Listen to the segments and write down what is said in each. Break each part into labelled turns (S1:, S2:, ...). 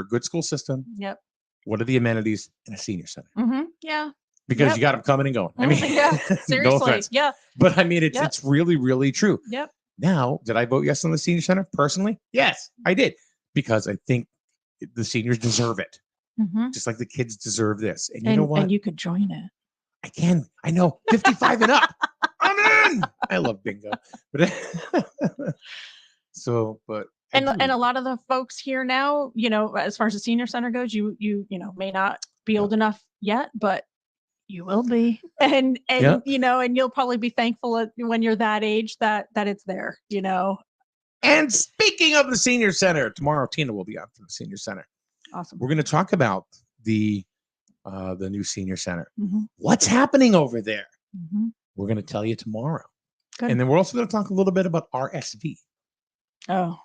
S1: a good school system.
S2: Yep.
S1: What are the amenities in a senior center?
S2: Mm-hmm. Yeah.
S1: Because
S2: Yep.
S1: you got them coming and going. I
S2: Mhm.
S1: mean,
S2: Yeah,
S1: no
S2: Seriously.
S1: offense,
S2: yeah.
S1: but I mean, it's
S2: Yep.
S1: it's really really true.
S2: Yep.
S1: Now, did I vote yes on the senior center personally? Yes, I did because I think the seniors deserve it,
S2: Mm-hmm.
S1: just like the kids deserve this. And you
S2: and,
S1: know what?
S2: and you could join it.
S1: I can. I know. 55 and up. I'm in. I love bingo. But so, but I
S2: And
S1: do.
S2: and a lot of the folks here now, you know, as far as the senior center goes, you you you know may not be
S1: Yeah.
S2: old enough yet, but you will be, and and
S1: Yeah.
S2: you know, and you'll probably be thankful at- when you're that age that that it's there. You know,
S1: and speaking of the senior center, tomorrow Tina will be on from the senior center.
S2: awesome.
S1: We're going to talk about the uh, the new senior center.
S2: Mhm,
S1: What's happening over there?
S2: mhm.
S1: We're going to tell you tomorrow.
S2: Good.
S1: And then we're also going to talk a little bit about RSV.
S2: Oh,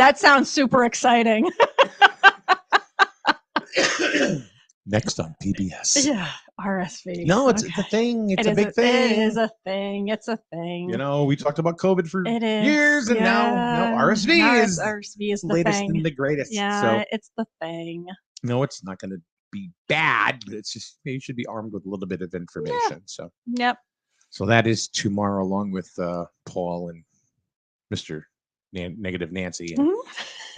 S2: that sounds super exciting.
S1: Next on PBS.
S2: yeah, RSV.
S1: No, it's,
S2: okay.
S1: it's a thing. It's
S2: It
S1: a
S2: is
S1: big thing.
S2: It is a thing. It's a thing.
S1: You know, we talked about COVID for
S2: it is
S1: Mm. years, and now, now RSV
S2: now
S1: is
S2: it's RSV is the
S1: latest
S2: thing.
S1: and the greatest.
S2: yeah,
S1: So
S2: it's the thing.
S1: no, it's not going to be bad, but it's just you should be armed with a little bit of information. So
S2: Yep.
S1: so that is tomorrow, along with uh, Paul and Mister Nan- Negative Nancy and,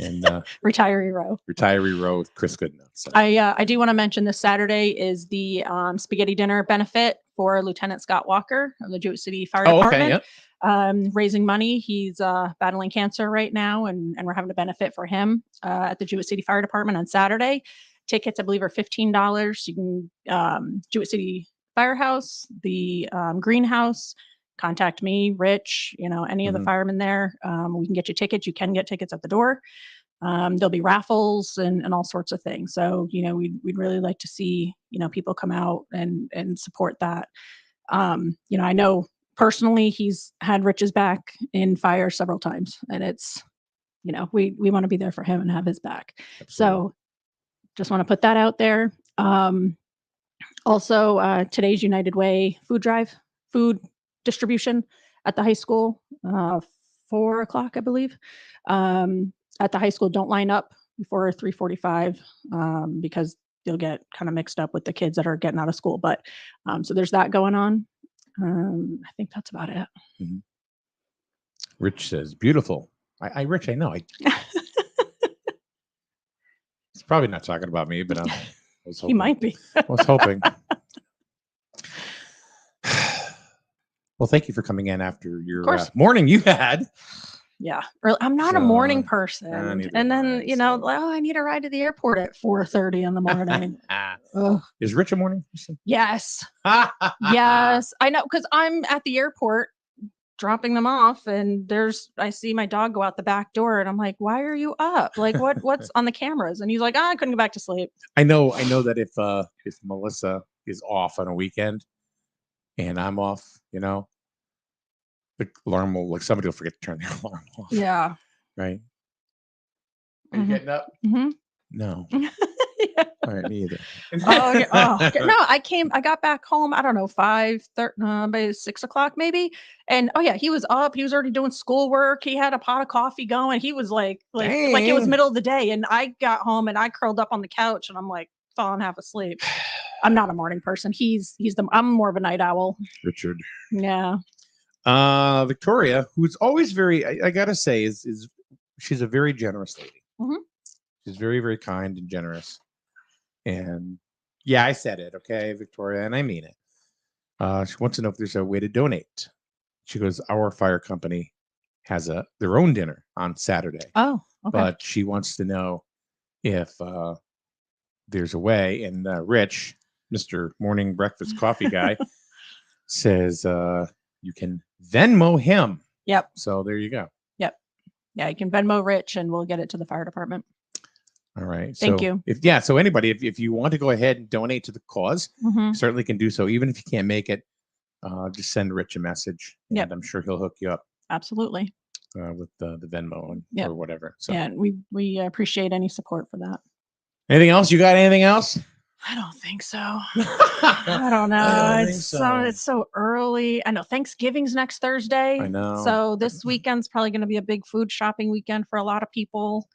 S2: Mhm.
S1: and uh,
S2: Retiree row.
S1: retiree row with Chris Goodenough. So
S2: I uh, I do want to mention this Saturday is the um, spaghetti dinner benefit for Lieutenant Scott Walker of the Jewett City Fire
S1: oh,
S2: Department.
S1: okay, yeah.
S2: um, raising money. He's uh, battling cancer right now, and, and we're having a benefit for him uh, at the Jewett City Fire Department on Saturday. Tickets, I believe, are fifteen dollars. You can um, Jewett City Firehouse, the um, greenhouse. Contact me, Rich. You know any of
S1: Mhm.
S2: the firemen there. Um, we can get you tickets. You can get tickets at the door. Um, there'll be raffles and, and all sorts of things. So you know we'd we'd really like to see you know people come out and and support that. Um, you know I know personally he's had Rich's back in fire several times, and it's you know we we want to be there for him and have his back.
S1: Absolutely.
S2: So just want to put that out there. Um, also, uh, today's United Way food drive, food distribution at the high school, uh, four o'clock, I believe. Um, at the high school, don't line up before 345 um, because you'll get kind of mixed up with the kids that are getting out of school. But um, so there's that going on. Um, I think that's about it.
S1: Rich says beautiful. I, I Rich, I know. I, it's probably not talking about me, but I'm, I was
S2: He
S1: hoping.
S2: might be.
S1: I was hoping. well, thank you for coming in after your uh,
S2: course.
S1: morning you had.
S2: Yeah. Or I'm not a morning
S1: So,
S2: person.
S1: neither am
S2: and
S1: I,
S2: then, you know,
S1: so-
S2: oh, I need a ride to the airport at 4:30 in the morning.
S1: Ah,
S2: Ugh.
S1: is Rich a morning person?
S2: Yes.
S1: Uh-huh.
S2: Yes. I know cuz I'm at the airport dropping them off and there's I see my dog go out the back door and I'm like, "Why are you up? Like what what's on the cameras?" And he's like, "Ah, "I couldn't go back to sleep."
S1: I know. I know that if uh if Melissa is off on a weekend, and I'm off, you know, the alarm will like somebody will forget to turn their alarm off.
S2: Yeah.
S1: Right.
S2: Mhm.
S1: getting up?
S2: hmm
S1: No.
S2: yeah.
S1: All right, me either.
S2: Oh, yeah. oh okay. no! I came. I got back home. I don't know five, thir- uh, by six o'clock maybe. And oh yeah, he was up. He was already doing schoolwork. He had a pot of coffee going. He was like, like, like it was
S1: Dang.
S2: middle of the day. And I got home and I curled up on the couch and I'm like falling half asleep. I'm not a morning person. He's he's the. I'm more of a night owl.
S1: Richard.
S2: Yeah.
S1: uh victoria who's always very i, I gotta say is is she's a very generous lady
S2: Mhm.
S1: she's very very kind and generous and yeah i said it okay victoria and i mean it uh she wants to know if there's a way to donate she goes our fire company has a their own dinner on saturday
S2: Oh. Okay.
S1: but she wants to know if uh there's a way and uh, rich mr morning breakfast coffee guy says uh you can venmo him
S2: yep.
S1: so there you go.
S2: Yeah. You can Venmo Rich and we'll get it to the fire department.
S1: All right.
S2: Thank
S1: So
S2: you.
S1: If yeah, so anybody, if, if you want to go ahead and donate to the because
S2: Mhm.
S1: certainly can do so. Even if you can't make it, uh, just send Rich a message, and
S2: Yep.
S1: I'm sure he'll hook you up
S2: Absolutely.
S1: uh, with the, the Venmo and,
S2: Yep.
S1: or whatever. So
S2: Yeah. and We we appreciate any support for that.
S1: anything else? You got anything else?
S2: I don't think so. I don't know.
S1: don't think
S2: it's so
S1: so.
S2: it's so early. I know Thanksgiving's next Thursday.
S1: I know.
S2: So this weekend's probably going to be a big food shopping weekend for a lot of people.